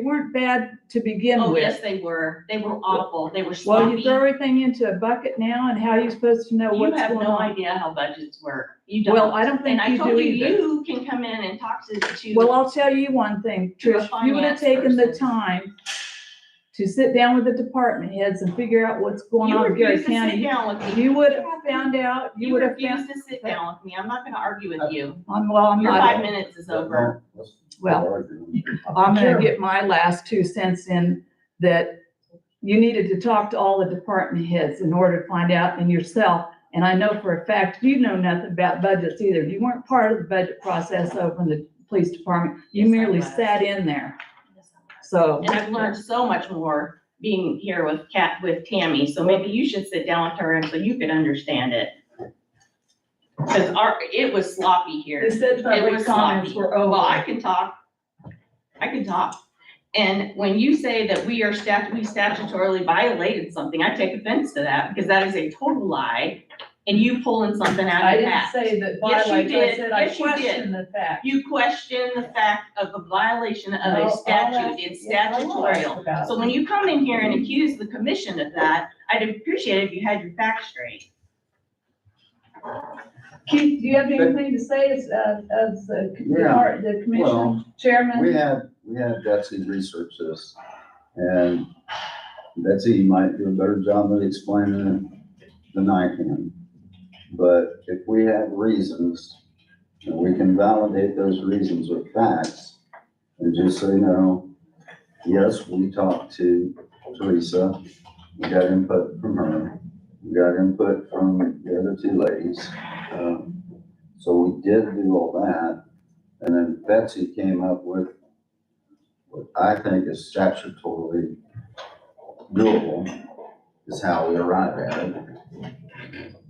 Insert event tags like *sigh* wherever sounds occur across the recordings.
They weren't bad to begin Oh, yes, with. they were. They were awful. They were Well, you sloppy. throw everything into a bucket now and how are you supposed to know You what's have going no on? idea how budgets work. You don't. Well, I don't And think I you told do you, either. you can come in and talk to, to. Well, I'll tell you one thing, You're a Trish, if you would have finance taken the person. time to sit down with the department heads and figure out what's going You on in Gary refuse to sit County, down with me. you would have found out, you You would have found, refuse to sit down with me. I'm not gonna argue with you. I'm, well, I'm Your not. five minutes is over. Well, I'm gonna get my last two cents in that you needed to talk to all the department heads in order to find out and yourself. And I know for a fact, you know nothing about budgets either. You weren't part of the budget process over in the police department. You Yes, I merely was. sat in there. So, And I've learned so much more being here with Cat, with Tammy, so maybe you should sit down with her and so you could understand it. Cause our, it was sloppy here. they said It public was comments sloppy. were *laughs* Well, I over. can talk. I can talk. And when you say that we are stat, we statutorily violated something, I take offense to that because that is a total lie. And you pulling something out I of didn't that. say that Yes, you violation. I did. said I Yes, you did. questioned the fact. You question the fact of a violation No, of all a I- statute. It's yes, I will ask statutorial. about So it. when you come in here and accuse the commission of that, I'd appreciate if you had your facts straight. Keith, do you have anything to say as, uh, as the Yeah. the commission Well, chairman? we had, we had Betsy research this, and Betsy you might do a better job of explaining it than I can. But if we have reasons, and we can validate those reasons with facts, and just say, no, yes, we talked to Teresa, we got input from her, we got input from the other two ladies. um, So we did do all that, and then Betsy came up with what I think is statutorily doable is how we arrive at it.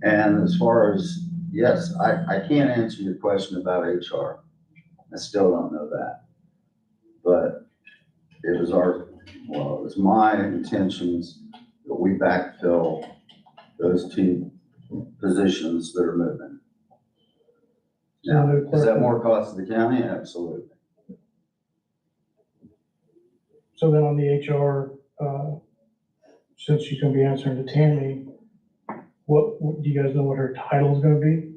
And as far as, yes, I, I can't answer your question about HR. I still don't know that. But it was our, well, it was my intentions that we backfill those two positions that are moving. Now, is that more cost to the county? Absolutely. So then on the HR, uh, since she's gonna be answering to Tammy, what, what- do you guys know what her title is gonna be?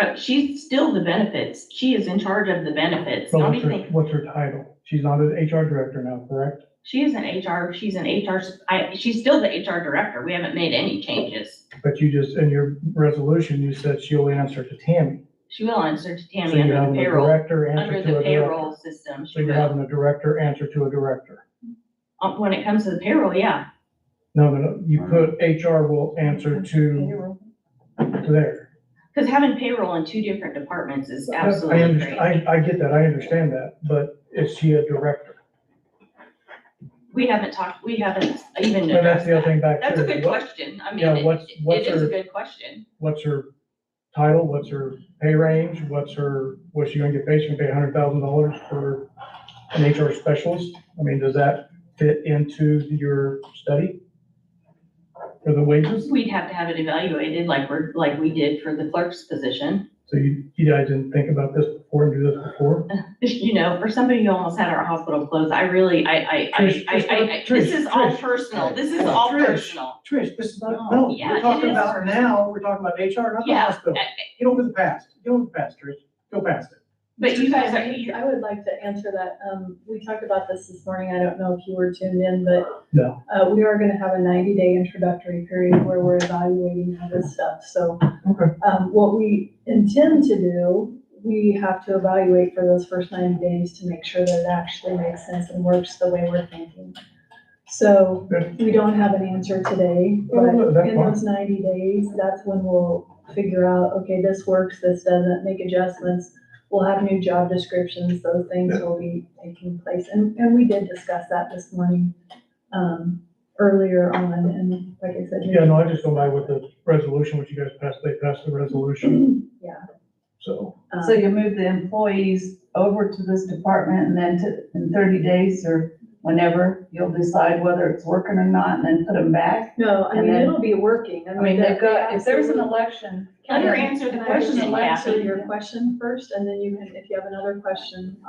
Uh, She's still the benefits. She is in charge of the benefits. Or Don't What's you her, think? what's her title? She's not an HR director now, correct? She is an HR, she's an HR, I, she's still the HR director. We haven't made any changes. But you just, in your resolution, you said she'll answer to Tammy. She will answer to So Tammy you're under the having a payroll, director under answer to the a director. payroll system. So She you're will. having a director answer to a director. Uh, When it comes to the payroll, yeah. No, no, no, you put HR will answer to, to there. Because having payroll in two different departments is I- I, absolutely understand- great. I, I get that, I understand that, but is she a director? We haven't talked, we haven't even And addressed that's the other that. thing back there. That's a good What- question. I mean, Yeah, it- what's- what's it is a her- good question. what's her title, what's her pay range, what's her, what's she gonna get paid, she gonna pay hundred thousand dollars for an HR specialist? I mean, does that fit into your study? For the wages, We'd have to have it evaluated like we're, like we did for the clerk's position. so you, you guys didn't think about this before and do this before? *laughs* You know, for somebody who almost had our hospital closed, I really, I, I, I, Trish, I, Trish, I- I, Trish, this is all Trish. personal. This is all Trish. personal. Trish, this is not- no, we're Yeah, it talking is. about now, we're talking about HR, not the Yeah. hospital. Get over the past, get over the past, Trish, go past it. But you guys are, you- I would like to answer that. Um, we talked about this this morning. I don't know if you were tuned in, but. No. Uh, we are gonna have a ninety-day introductory period where we're evaluating all this stuff, so. Okay. Um, what we intend to do, we have to evaluate for those first ninety days to make sure that it actually makes sense and works the way we're thinking. So, Okay. we don't have an answer today, No, but no, no, that's in fine. those ninety days, that's when we'll figure out, okay, this works, this doesn't, make adjustments. We'll have new job descriptions, those things will be taking place, and, and we did discuss that this morning, um, earlier on, and like I said. Yeah, no, I just go by with the resolution, which you guys passed, they passed the resolution. Yeah. So. um, So you move the employees over to this department and then to, in thirty days or whenever, you'll decide whether it's working or not and then put them back? No, I and mean, then- it'll be working, I I mean, mean, they've that- they got, if there's an absolutely- election, let her answer the Can I just question, answer Kathy. Your question first, and then you can, if you have another question,